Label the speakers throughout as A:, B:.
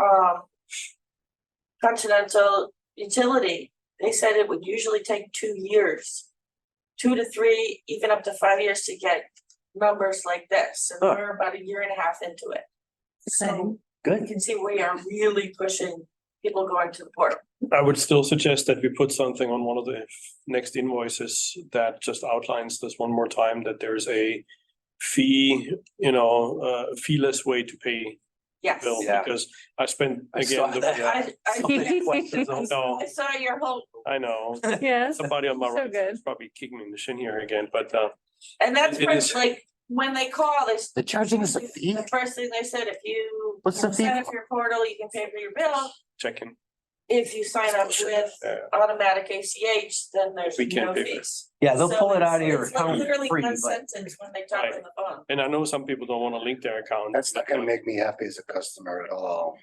A: um. Continental Utility, they said it would usually take two years. Two to three, even up to five years to get numbers like this, and
B: Oh.
C: Huh.
A: we're about a year and a half into it. So you
C: Good.
A: can see we are really pushing people going to the portal.
D: I would still suggest that we put something on one of the next invoices that just outlines this one more time, that there's a fee, you know, uh, fee-less way to pay
A: yes.
D: bill,
B: Yeah.
D: because I spent,
B: I saw
D: again, the-
B: that.
A: I I
D: no,
A: I saw your whole,
D: I know,
C: Yes.
D: somebody on my
C: So
D: right
C: good.
D: is probably kicking me in the shin here again, but, uh,
A: and that's
D: It is-
A: first, like, when they call, they s-
B: They're charging us a fee?
A: the first thing they said, if you
B: What's the fee
A: sign up your portal, you can pay for your bill.
D: checking.
A: If you sign up with
D: Yeah.
A: automatic ACH, then there's
D: We can't
A: no
D: pay for it.
A: fees.
B: Yeah, they'll
A: So
B: pull it
A: it's-
B: out of your
A: it's like
B: account
A: Literally
B: free,
A: one
B: but
A: sentence when they talk on the phone.
D: And I know some people don't wanna link their account. uh,
E: That's not gonna make me happy as a customer at all.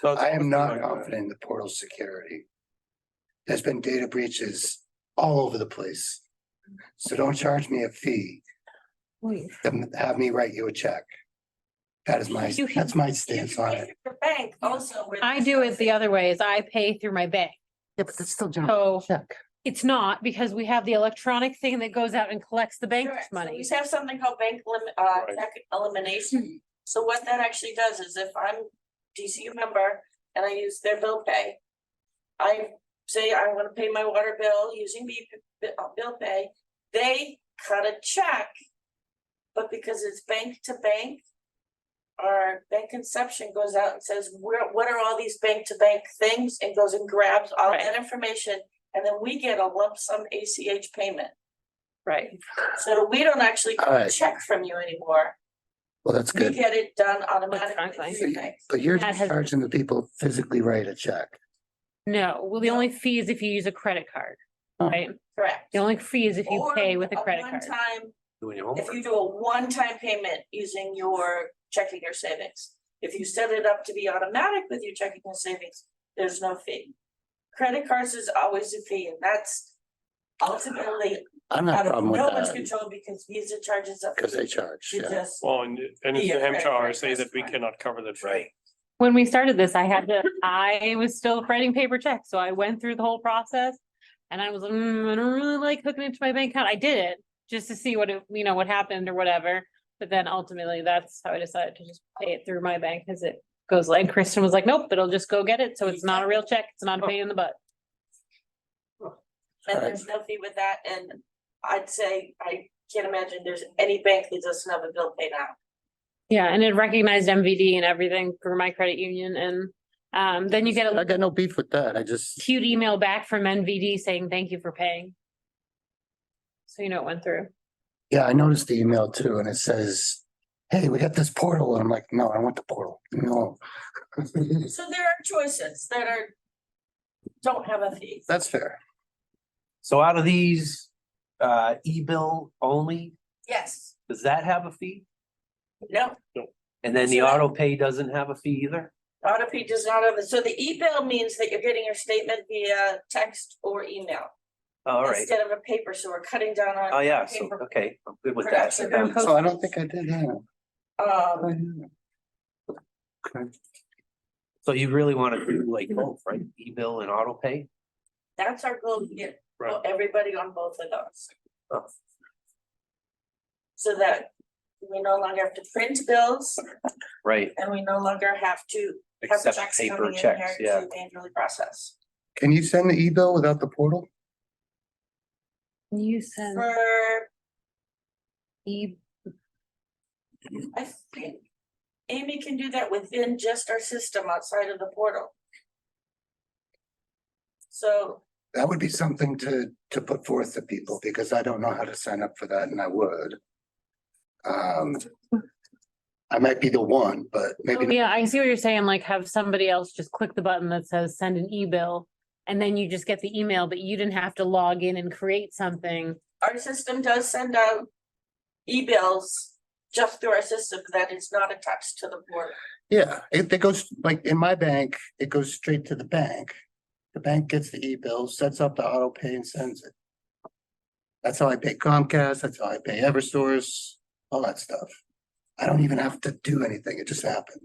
D: So it's
E: I am not
D: something like that.
E: confident in the portal's security. There's been data breaches all over the place. So don't charge me a fee to have me write you a check. That is my,
F: You-
E: that's my
A: You
E: stance
A: can
E: on
A: pay
E: it.
A: for your bank also with.
F: I do it the other way is I pay through my bank.
B: Yeah, but that's still general
F: So
B: check.
F: it's not because we have the electronic thing that goes out and collects the
A: Correct.
F: bank's
A: So
F: money.
A: We have something called bank limit, uh,
D: Right.
A: check elimination. So what that actually does is if I'm DCU member and I use their bill pay. I say I wanna pay my water bill using B, B- uh, bill pay, they cut a check. But because it's bank to bank. Our bank conception goes out and says, where, what are all these bank to bank things? And goes and grabs all
F: Right.
A: that information. And then we get a lump sum ACH payment.
F: Right.
A: So we don't actually get a
E: Alright.
A: check from you anymore.
E: Well, that's
A: We
E: good,
A: get it done automatically.
F: Electronically.
A: through your bank.
E: but you're
F: That has-
E: charging the people physically write a check.
F: No, well, the
A: No.
F: only fee is if you use a credit card,
B: Oh.
F: right?
A: Correct.
F: The only fee is if you
A: Or
F: pay with a credit card.
A: one-time-
B: Doing your
A: if you do a one-time payment using your checking or savings. If you set it up to be automatic with your checking or savings, there's no fee. Credit cards is always a fee and that's ultimately
E: I'm not
A: out of
E: problem with
A: no one's
E: that,
A: control because Visa charges up.
E: because they charge,
A: You
E: yeah.
A: just,
D: Well, and, and it's
A: Yeah,
D: the
A: right,
D: Hampshire
A: right,
D: RSA that
A: that's
D: we
A: fine.
D: cannot cover that. fee.
F: When we started this, I had to, I was still writing paper checks, so I went through the whole process. And I was, like, mm, I don't really like hooking it to my bank account. I did it just to see what, it- you know, what happened or whatever. But then ultimately, that's how I decided to just pay it through my bank because it goes like, and Kristen was like, nope, it'll just go get it. So it's not a real check. It's not a pain in the butt.
A: and
E: Alright.
A: there's no fee with that and I'd say I can't imagine there's any bank that doesn't have a bill pay now.
F: Yeah, and it recognized MVD and everything through my credit union and um then you get
E: I
F: a
E: got no beef with that, I just,
F: cute email back from NVD saying thank you for paying. So you know it went through.
E: yeah, I noticed the email too, and it says, hey, we got this portal, and I'm like, no, I want the portal, no.
A: So there are choices that are. Don't have a fee.
E: That's fair.
B: So out of these, uh, e-bill only,
A: Yes,
B: does that have a fee?
A: no,
B: And then the
A: So that-
B: auto pay doesn't have a fee either?
A: auto P does not have, it. so the e-bill means that you're getting your statement via text or email.
B: Oh, All right.
A: Instead of a paper, so we're cutting down on.
B: Oh, yeah, so,
A: paper.
B: okay, I'm good with that.
A: Production and
E: So I don't think I did that.
A: Um,
B: So you really want to do like both, right? E-bill and auto pay?
A: that's our goal, to get
D: Right.
A: everybody on both of
B: Oh.
A: those. So that we no longer have to print bills
B: Right,
A: and we no longer have to have
B: except
A: checks
B: paper
A: coming in
B: checks,
A: here
B: yeah.
A: to manually process.
E: Can you send the e-bill without the portal?
F: You send
A: For,
F: e,
A: I think Amy can do that within just our system outside of the portal. So,
E: That would be something to, to put forth to people, because I don't know how to sign up for that, and I would. Um, I might be the one, but maybe. not.
F: yeah, I see what you're saying, like have somebody else just click the button that says send an e-bill. And then you just get the email, but you didn't have to log in and create something.
A: our system does send out e-bills just through our system that is not attached to the portal.
E: Yeah, it, it goes, like, in my bank, it goes straight to the bank. The bank gets the e-bill, sets up the auto pay and sends it. That's how I pay Comcast, that's how I pay Eversource, all that stuff. I don't even have to do anything, it just happens.